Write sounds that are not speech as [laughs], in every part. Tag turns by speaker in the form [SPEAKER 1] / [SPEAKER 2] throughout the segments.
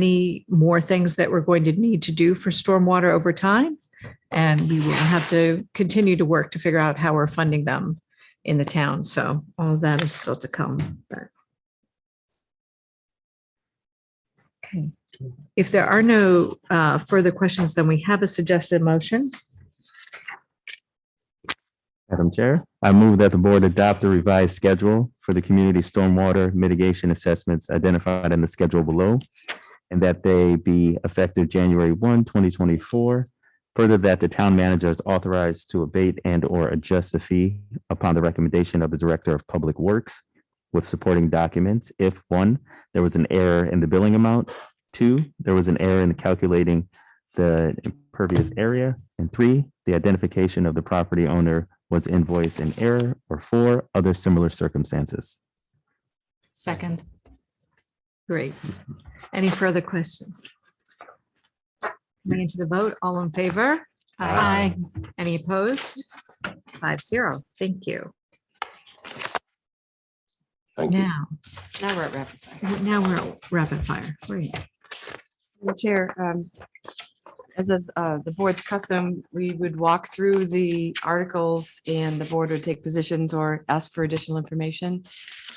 [SPEAKER 1] any more things that we're going to need to do for stormwater over time. And we will have to continue to work to figure out how we're funding them in the town. So all of that is still to come. but- Okay. If there are no uh, further questions, then we have a suggested motion.
[SPEAKER 2] Madam Chair, I move that the board adopt the revised schedule for the community stormwater mitigation assessments identified in the schedule below, and that they be effective January 1, 2024. Further, that the town manager is authorized to abate and/or adjust the fee upon the recommendation of the Director of Public Works with supporting documents if, one, there was an error in the billing amount, two, there was an error in calculating the impervious area, and three, the identification of the property owner was invoiced in error, or four, other similar circumstances.
[SPEAKER 1] Second. Great. Any further questions? Coming into the vote, all in favor?
[SPEAKER 2] Aye.
[SPEAKER 1] Any opposed? Five zero. Thank you.
[SPEAKER 3] Thank you.
[SPEAKER 1] Now,
[SPEAKER 4] Now we're at rapid fire.
[SPEAKER 1] now we're at rapid fire. Great.
[SPEAKER 4] Madam Chair, um, as is uh, the board's custom, we would walk through the articles and the board would take positions or ask for additional information.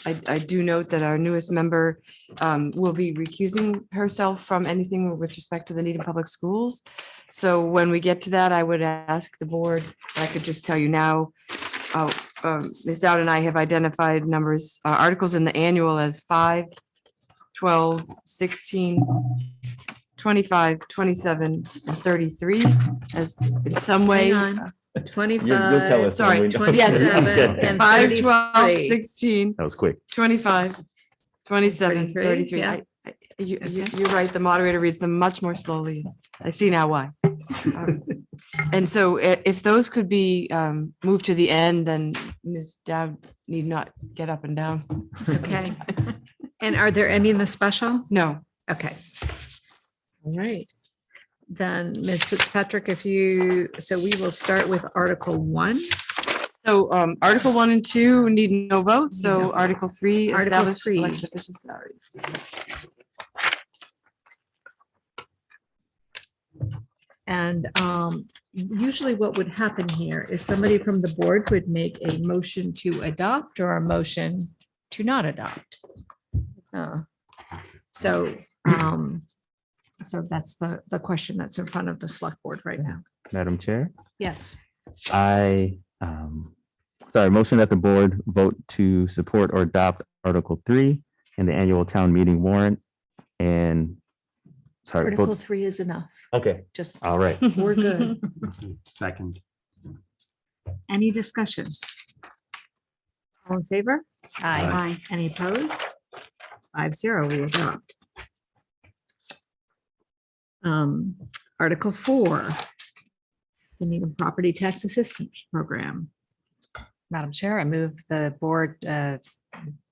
[SPEAKER 4] I, I do note that our newest member um, will be recusing herself from anything with respect to the Needham Public Schools. So when we get to that, I would ask the board, I could just tell you now, uh, um, Ms. Dowd and I have identified numbers, uh, articles in the annual as five, 12, 16, 25, 27, and 33 as in some way.
[SPEAKER 1] Hang on.
[SPEAKER 2] You'll tell
[SPEAKER 1] Twenty-five,
[SPEAKER 2] us.
[SPEAKER 4] sorry,
[SPEAKER 2] when we know. [laughs]
[SPEAKER 1] 27
[SPEAKER 2] Okay.
[SPEAKER 1] Uh, and-
[SPEAKER 4] 5, 12,
[SPEAKER 1] 33.
[SPEAKER 4] 16,
[SPEAKER 2] That was quick.
[SPEAKER 4] 25, 27,
[SPEAKER 1] 33,
[SPEAKER 4] 33.
[SPEAKER 1] yeah.
[SPEAKER 4] I- I- You, you-
[SPEAKER 1] Okay.
[SPEAKER 4] you're right, the moderator reads them much more slowly. I see now why. Um,
[SPEAKER 1] [laughs]
[SPEAKER 4] And so i- if those could be um, moved to the end, then Ms. Dowd need not get up and down.
[SPEAKER 1] okay. And are there any in the special?
[SPEAKER 4] No,
[SPEAKER 1] Okay. All right. Then Ms. Fitzpatrick, if you, so we will start with Article One.
[SPEAKER 4] so um, Article 1 and 2 need no vote, so
[SPEAKER 1] No.
[SPEAKER 4] Article 3.
[SPEAKER 1] Article
[SPEAKER 4] establish
[SPEAKER 1] three.
[SPEAKER 4] elected official salaries.
[SPEAKER 1] And um, usually what would happen here is somebody from the board would make a motion to adopt or a motion to not adopt. Uh, So, um, so that's the, the question that's in front of the select board right now.
[SPEAKER 2] Madam Chair,
[SPEAKER 1] Yes.
[SPEAKER 2] I, um, sorry, motion that the board vote to support or adopt Article Three in the annual town meeting warrant and, sorry, vote-
[SPEAKER 1] Article three is enough.
[SPEAKER 2] okay,
[SPEAKER 1] Just,
[SPEAKER 2] all right.
[SPEAKER 1] we're good.
[SPEAKER 3] Second.
[SPEAKER 1] Any discussion? All in favor?
[SPEAKER 3] Aye.
[SPEAKER 1] Any opposed? Five zero, we adopt. Um, Article four. The Needham Property Tax Assistance Program.
[SPEAKER 5] Madam Chair, I move the board uh, s-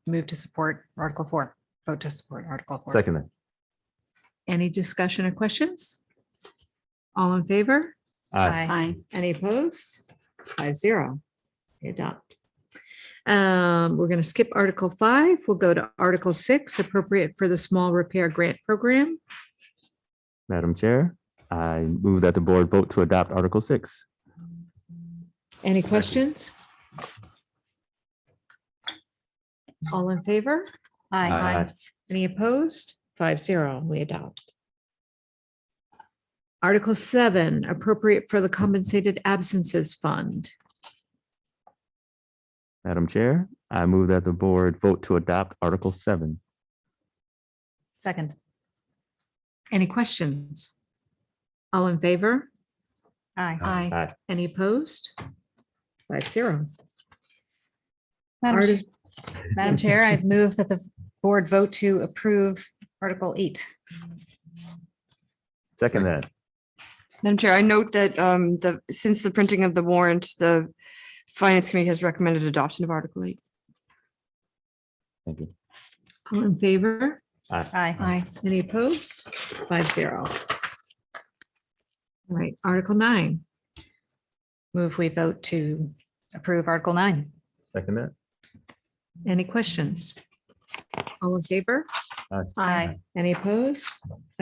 [SPEAKER 5] move to support Article 4, vote to support Article 4.
[SPEAKER 2] Second, then.
[SPEAKER 1] Any discussion or questions? All in favor?
[SPEAKER 2] aye,
[SPEAKER 1] Aye. Any opposed? Five zero. Adopt. Um, we're going to skip Article five. We'll go to Article six, appropriate for the small repair grant program.
[SPEAKER 2] Madam Chair, I move that the board vote to adopt Article Six.
[SPEAKER 1] Any
[SPEAKER 3] Second.
[SPEAKER 1] questions? All in favor?
[SPEAKER 2] Aye.
[SPEAKER 1] Any opposed? Five zero, we adopt. Article seven, appropriate for the compensated absences fund.
[SPEAKER 2] Madam Chair, I move that the board vote to adopt Article Seven.
[SPEAKER 5] Second.
[SPEAKER 1] Any questions? All in favor?
[SPEAKER 5] Aye.
[SPEAKER 3] Aye.
[SPEAKER 2] Aye.
[SPEAKER 1] Any opposed? Five zero.
[SPEAKER 5] Madam
[SPEAKER 1] Arti-
[SPEAKER 5] Ch- Madam Chair,
[SPEAKER 1] [laughs]
[SPEAKER 5] I move that the board vote to approve Article 8.
[SPEAKER 2] Second that.
[SPEAKER 4] Madam Chair, I note that um, the, since the printing of the warrant, the Finance Committee has recommended adoption of Article 8.
[SPEAKER 2] Thank you.
[SPEAKER 1] All in favor?
[SPEAKER 5] Aye.
[SPEAKER 1] Any opposed? Five zero. All right, Article nine.
[SPEAKER 5] Move we vote to approve Article 9.
[SPEAKER 2] Second that.
[SPEAKER 1] Any questions? All in favor?
[SPEAKER 2] Aye.
[SPEAKER 1] Any opposed?